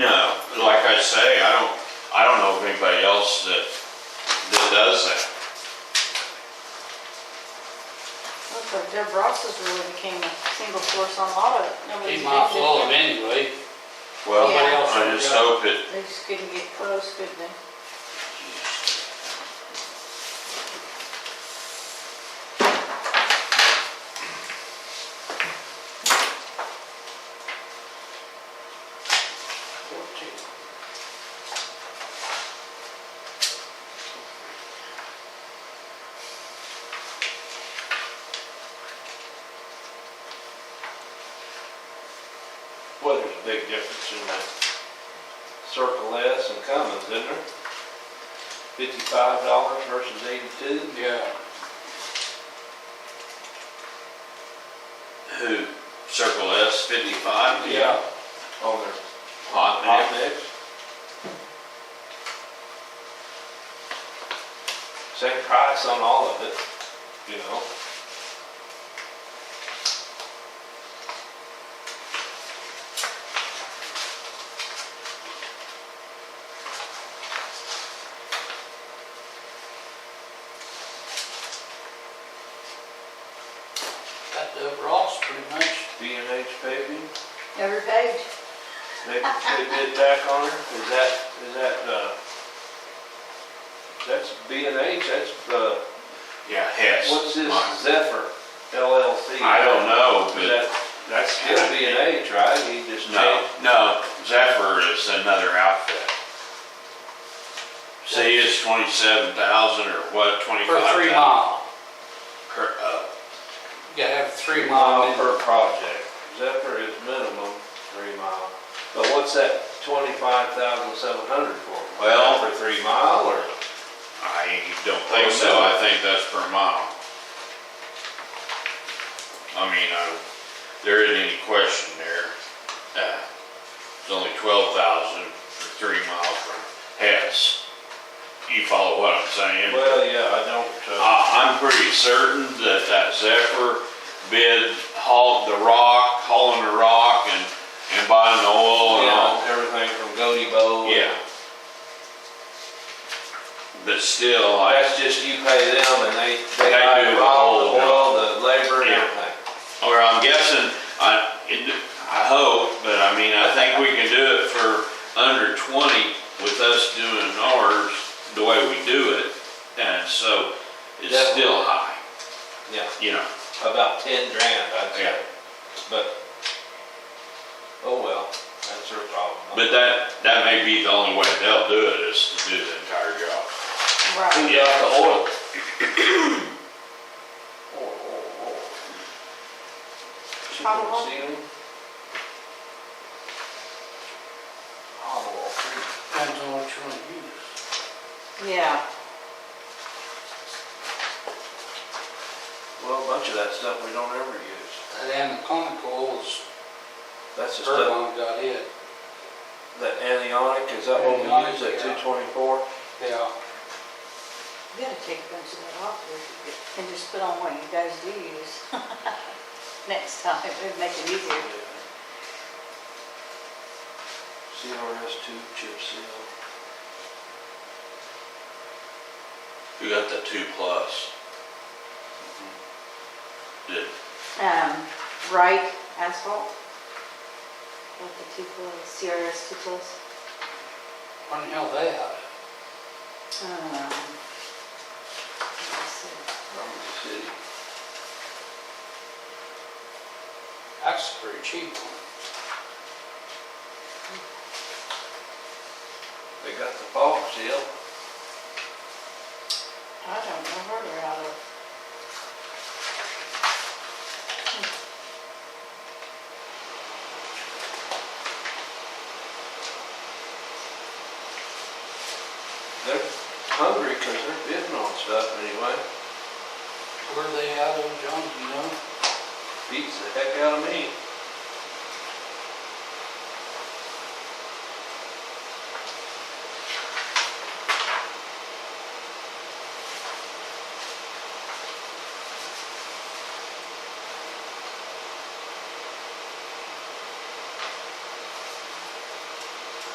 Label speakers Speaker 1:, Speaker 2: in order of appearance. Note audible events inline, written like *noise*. Speaker 1: No, like I say, I don't, I don't know of anybody else that, that does that.
Speaker 2: Looks like Deb Ross's really became a single source on auto. Nobody
Speaker 3: Keep my full of anyway.
Speaker 1: Well,
Speaker 2: Yeah.
Speaker 1: I just hope it,
Speaker 2: They just couldn't get close, could they?
Speaker 4: Well, there's a big difference in that Circle S and Cummins, isn't there? Fifty-five dollars versus eighty-two.
Speaker 3: Yeah.
Speaker 1: who, Circle S fifty-five?
Speaker 4: On their
Speaker 1: Hot
Speaker 4: hot
Speaker 1: mix?
Speaker 4: mix. Same price on all of it, you know?
Speaker 3: Got the Ross pretty much.
Speaker 4: B and H paving,
Speaker 2: Every page.
Speaker 4: they, they bid back on her, is that, is that, uh, that's B and H, that's, uh,
Speaker 1: Yeah, Hess.
Speaker 4: what's this
Speaker 1: Mine.
Speaker 4: Zephyr LLC?
Speaker 1: I don't know,
Speaker 4: Is
Speaker 1: but,
Speaker 4: that, that's still B and H, right? He just
Speaker 1: no,
Speaker 4: changed.
Speaker 1: no, Zephyr is another outfit. See, it's twenty-seven thousand or what,
Speaker 3: For
Speaker 1: twenty-five?
Speaker 3: three mile.
Speaker 1: Uh,
Speaker 3: You gotta have three
Speaker 4: Mile
Speaker 3: mile.
Speaker 4: per project. Zephyr is minimum three mile. But what's that twenty-five thousand seven hundred for?
Speaker 1: Well-
Speaker 4: For three mile or?
Speaker 1: I don't think so, I think that's per mile. I mean, I, there isn't any question there. Uh, It's only twelve thousand for three miles from Hess. You follow what I'm saying?
Speaker 4: Well, yeah, I don't, uh,
Speaker 1: I, I'm pretty certain that that Zephyr bid haul the rock, hauling the rock and, and buying the oil and all.
Speaker 4: yeah, everything from Goody Bowl.
Speaker 1: Yeah. But still, I,
Speaker 4: Oh, That's just you pay them and they,
Speaker 1: They
Speaker 4: they
Speaker 1: do
Speaker 4: buy the
Speaker 1: the
Speaker 4: rock, the
Speaker 1: whole-
Speaker 4: oil, the labor and
Speaker 1: Yeah.
Speaker 4: everything.
Speaker 1: Or I'm guessing, I, it, I hope, but I mean, I think we can do it for under twenty with us doing ours the way we do it. And so it's still high,
Speaker 4: Yeah,
Speaker 1: you know,
Speaker 4: about ten grand, I'd say.
Speaker 1: Yeah.
Speaker 4: But, oh well, that's their problem.
Speaker 1: but that, that may be the only way they'll do it is to do the entire job.
Speaker 2: Right.
Speaker 4: Who got the oil?
Speaker 2: Probable.
Speaker 4: Ceiling? Probable.
Speaker 3: Depends on what you wanna use.
Speaker 2: Yeah.
Speaker 4: Well, a bunch of that stuff we don't ever use.
Speaker 3: That anaconical is,
Speaker 4: That's the stuff,
Speaker 3: Erlon got it.
Speaker 4: that anionic, is that what we
Speaker 3: Anionic,
Speaker 4: use at
Speaker 3: yeah.
Speaker 4: two twenty-four?
Speaker 3: Yeah.
Speaker 2: You gotta take a bunch of that off there if you could, and just put on what you guys do use. *laughs* Next time, it'd make it easier.
Speaker 4: CRS two chip seal.
Speaker 1: Who got the two plus? Did,
Speaker 2: Um, right asphalt. With the two plus, CRS two plus.
Speaker 3: When the hell they out?
Speaker 2: Um, let's see.
Speaker 4: from the city.
Speaker 3: That's a pretty cheap one.
Speaker 4: They got the fog seal.
Speaker 2: I don't know where they're out of.
Speaker 4: They're hungry because they're bidding on stuff anyway.
Speaker 3: Where they out of, John, do you know?
Speaker 4: Beats the heck out of me.